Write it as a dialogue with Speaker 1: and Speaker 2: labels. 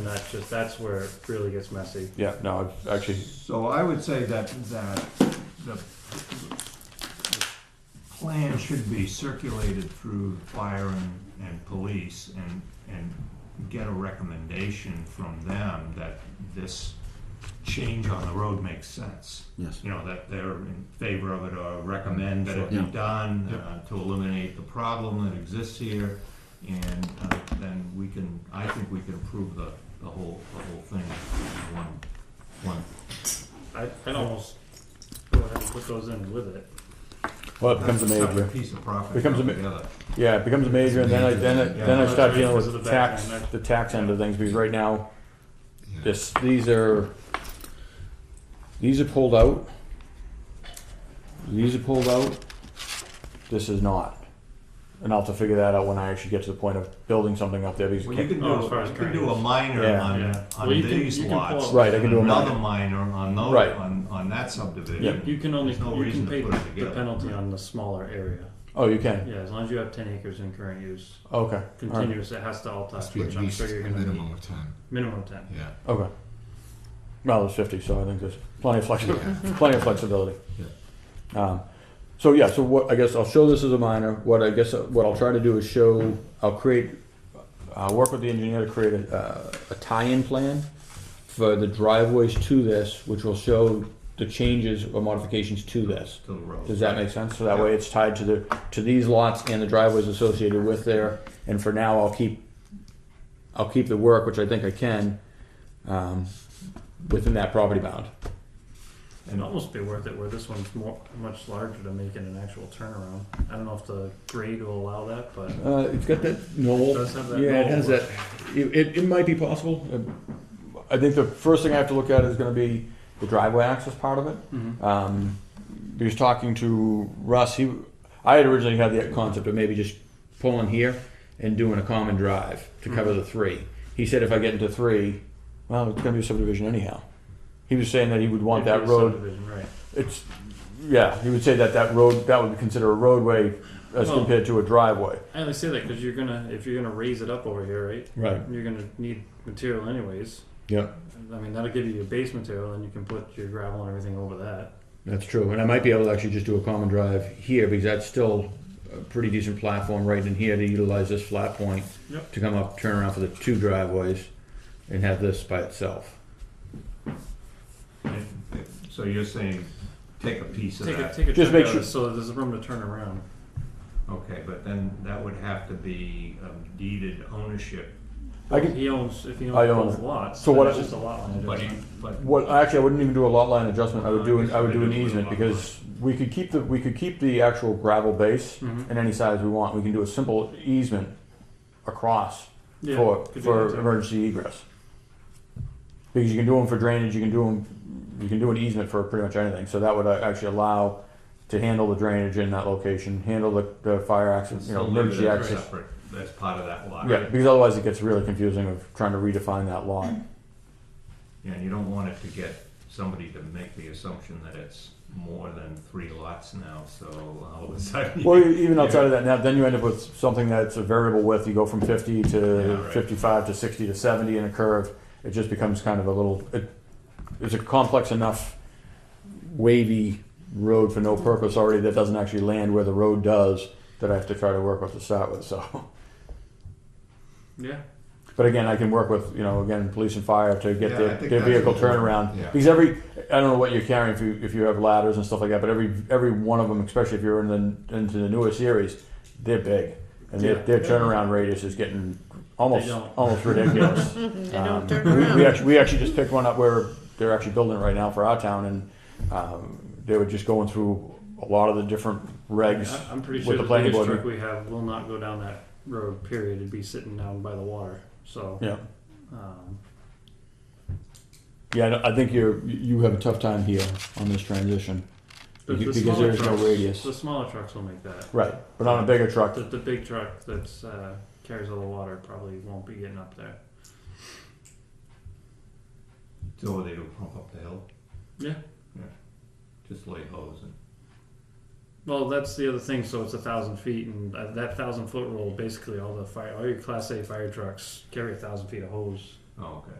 Speaker 1: that's just, that's where it really gets messy.
Speaker 2: Yeah, no, I've actually,
Speaker 3: So I would say that, that the the plan should be circulated through fire and, and police and, and get a recommendation from them that this change on the road makes sense.
Speaker 4: Yes.
Speaker 3: You know, that they're in favor of it or recommend that it be
Speaker 4: Sure. Yeah.
Speaker 3: done uh, to eliminate the problem that exists here. And uh, then we can, I think we can approve the, the whole, the whole thing in one, one
Speaker 1: I, I'd almost go ahead and put those in with it.
Speaker 2: well, it becomes a major.
Speaker 3: Piece of property.
Speaker 2: Becomes a ma-
Speaker 3: altogether.
Speaker 2: Yeah, it becomes a major, and then I, then I, then I start dealing with the tax, the tax end of things, because right now, this, these are, these are pulled out. These are pulled out, this is not. And I'll have to figure that out when I actually get to the point of building something up there, because,
Speaker 3: Well, you can
Speaker 1: Oh, as far
Speaker 3: do,
Speaker 1: as
Speaker 3: you can do a
Speaker 1: drainage.
Speaker 3: minor
Speaker 2: Yeah.
Speaker 3: on,
Speaker 1: Yeah.
Speaker 3: on
Speaker 1: Well, you can-
Speaker 3: these
Speaker 1: you can pull
Speaker 3: lots.
Speaker 1: up-
Speaker 2: Right, I can do a
Speaker 3: Another
Speaker 2: minor.
Speaker 3: minor on those,
Speaker 2: Right.
Speaker 3: on, on that subdivision.
Speaker 2: Yeah.
Speaker 1: You can only,
Speaker 3: There's no
Speaker 1: you
Speaker 3: reason
Speaker 1: can
Speaker 3: to
Speaker 1: pay
Speaker 3: put it
Speaker 1: the
Speaker 3: together.
Speaker 1: penalty on the smaller area.
Speaker 2: oh, you can,
Speaker 1: Yeah, as long as you have ten acres in current use,
Speaker 2: okay, all right,
Speaker 1: continuous, it has to all
Speaker 5: Must
Speaker 1: touch,
Speaker 5: be at
Speaker 1: which I'm
Speaker 5: least
Speaker 1: sure
Speaker 5: a
Speaker 1: you're gonna need.
Speaker 5: minimum of ten,
Speaker 1: Minimum ten.
Speaker 5: yeah.
Speaker 2: okay. Well, there's fifty, so I think there's plenty of flexibility, plenty of flexibility. Um, so yeah, so what I guess I'll show this as a minor. What I guess uh, what I'll try to do is show. I'll create. I'll work with the engineer to create a, uh, a tie-in plan for the driveways to this, which will show the changes or modifications to this.
Speaker 3: To the road.
Speaker 2: Does that make sense? So that way it's tied to the, to these lots and the driveways associated with there, and for now, I'll keep, I'll keep the work, which I think I can, um, within that property bound.
Speaker 1: It'd almost be worth it where this one's more, much larger to make it an actual turnaround. I don't know if the grade will allow that, but it
Speaker 2: Uh, it's got that knoll.
Speaker 1: does have that.
Speaker 2: Yeah, it
Speaker 1: knoll
Speaker 2: has
Speaker 1: where-
Speaker 2: that, it, it, it might be possible. Uh, I think the first thing I have to look at is gonna be the driveway access part of it.
Speaker 1: Mhm.
Speaker 2: Um, he was talking to Russ, he, I had originally had the concept of maybe just pulling here and doing a common drive to cover the three. He said if I get into three, well, it's gonna be a subdivision anyhow. He was saying that he would want
Speaker 1: It'd be a
Speaker 2: that road
Speaker 1: subdivision, Right.
Speaker 2: it's, yeah, he would say that that road, that would be considered a roadway as
Speaker 1: Well-
Speaker 2: compared to a driveway.
Speaker 1: I only say that because you're gonna, if you're gonna raise it up over here, right?
Speaker 2: Right.
Speaker 1: You're gonna need material anyways.
Speaker 2: Yeah,
Speaker 1: I mean, that'll give you your base material, and you can put your gravel and everything over that.
Speaker 2: that's true. And I might be able to actually just do a common drive here because that's still a pretty decent platform right in here to utilize this flat point
Speaker 1: Yep.
Speaker 2: to come up, turn around for the two driveways and have this by itself.
Speaker 3: And- So you're saying, take a piece of
Speaker 1: Take a,
Speaker 3: that,
Speaker 1: take a
Speaker 2: Just
Speaker 1: chunk
Speaker 2: make
Speaker 1: out
Speaker 2: sure-
Speaker 1: so that there's room to turn around.
Speaker 3: okay, but then that would have to be um, deeded ownership,
Speaker 2: I can,
Speaker 1: He owns, if he
Speaker 2: I
Speaker 1: owns
Speaker 2: own
Speaker 1: both
Speaker 2: it.
Speaker 1: lots,
Speaker 2: So
Speaker 1: then
Speaker 2: what
Speaker 1: it's
Speaker 2: I-
Speaker 1: just a lot line
Speaker 3: but,
Speaker 1: adjustment.
Speaker 3: but.
Speaker 2: What actually, I wouldn't even do a lot line adjustment. I would do an, I would do an easement because we could keep the we could keep the actual gravel base
Speaker 1: Mhm.
Speaker 2: in any size we want. We can do a simple easement across
Speaker 1: Yeah,
Speaker 2: for
Speaker 1: could do that
Speaker 2: for
Speaker 1: too.
Speaker 2: emergency egress because you can do them for drainage. You can do them. You can do an easement for pretty much anything. So that would uh, actually allow to handle the drainage in that location, handle the, the fire access, you know,
Speaker 3: Still leave it
Speaker 2: emergency
Speaker 3: as
Speaker 2: access.
Speaker 3: separate, As part of that lot.
Speaker 2: Yeah, because otherwise it gets really confusing of trying to redefine that lot.
Speaker 3: Yeah, and you don't want it to get somebody to make the assumption that it's more than three lots now, so all of a sudden.
Speaker 2: Well, e- even outside of that, now then you end up with something that's a variable width. You go from fifty
Speaker 3: Yeah,
Speaker 2: to
Speaker 3: right.
Speaker 2: fifty-five to sixty to seventy in a curve. It just becomes kind of a little. It, it's a complex enough wavy road for no purpose already that doesn't actually land where the road does that I have to try to work with to start with. So,
Speaker 1: Yeah.
Speaker 2: but again, I can work with you know again police and fire to get
Speaker 3: Yeah, I
Speaker 2: their,
Speaker 3: think
Speaker 2: their
Speaker 3: that's
Speaker 2: vehicle
Speaker 3: important.
Speaker 2: turnaround
Speaker 5: Yeah.
Speaker 2: because every I don't know what you're carrying if you if you have ladders and stuff like that, but every every one of them, especially if you're in the into the newer series, they're big. And their,
Speaker 1: Yeah.
Speaker 2: their turnaround radius is getting almost
Speaker 1: They don't.
Speaker 2: almost ridiculous.
Speaker 6: They
Speaker 2: Um,
Speaker 6: don't turn
Speaker 2: we,
Speaker 6: around.
Speaker 2: we actually we actually just picked one up where they're actually building it right now for our town, and um, they were just going through a lot of the different regs.
Speaker 1: I- I'm pretty
Speaker 2: with
Speaker 1: sure
Speaker 2: the
Speaker 1: the,
Speaker 2: planning
Speaker 1: biggest
Speaker 2: board.
Speaker 1: truck we have will not go down that road, period. It'd be sitting down by the water. So,
Speaker 2: Yeah,
Speaker 1: um,
Speaker 2: yeah. I don't- I think you're you have a tough time here on this transition
Speaker 1: the, the
Speaker 2: because
Speaker 1: smaller
Speaker 2: there's no
Speaker 1: trucks-
Speaker 2: radius.
Speaker 1: The smaller trucks will make that.
Speaker 2: Right, but on a bigger truck,
Speaker 1: The, the big truck that's uh, carries all the water probably won't be getting up there.
Speaker 3: So they do pump up the hill,
Speaker 1: Yeah.
Speaker 3: just lay hose and.
Speaker 1: Well, that's the other thing. So it's a thousand feet, and uh, that thousand foot rule basically all the fire, all your class A fire trucks carry a thousand feet of hose.
Speaker 3: Oh, okay.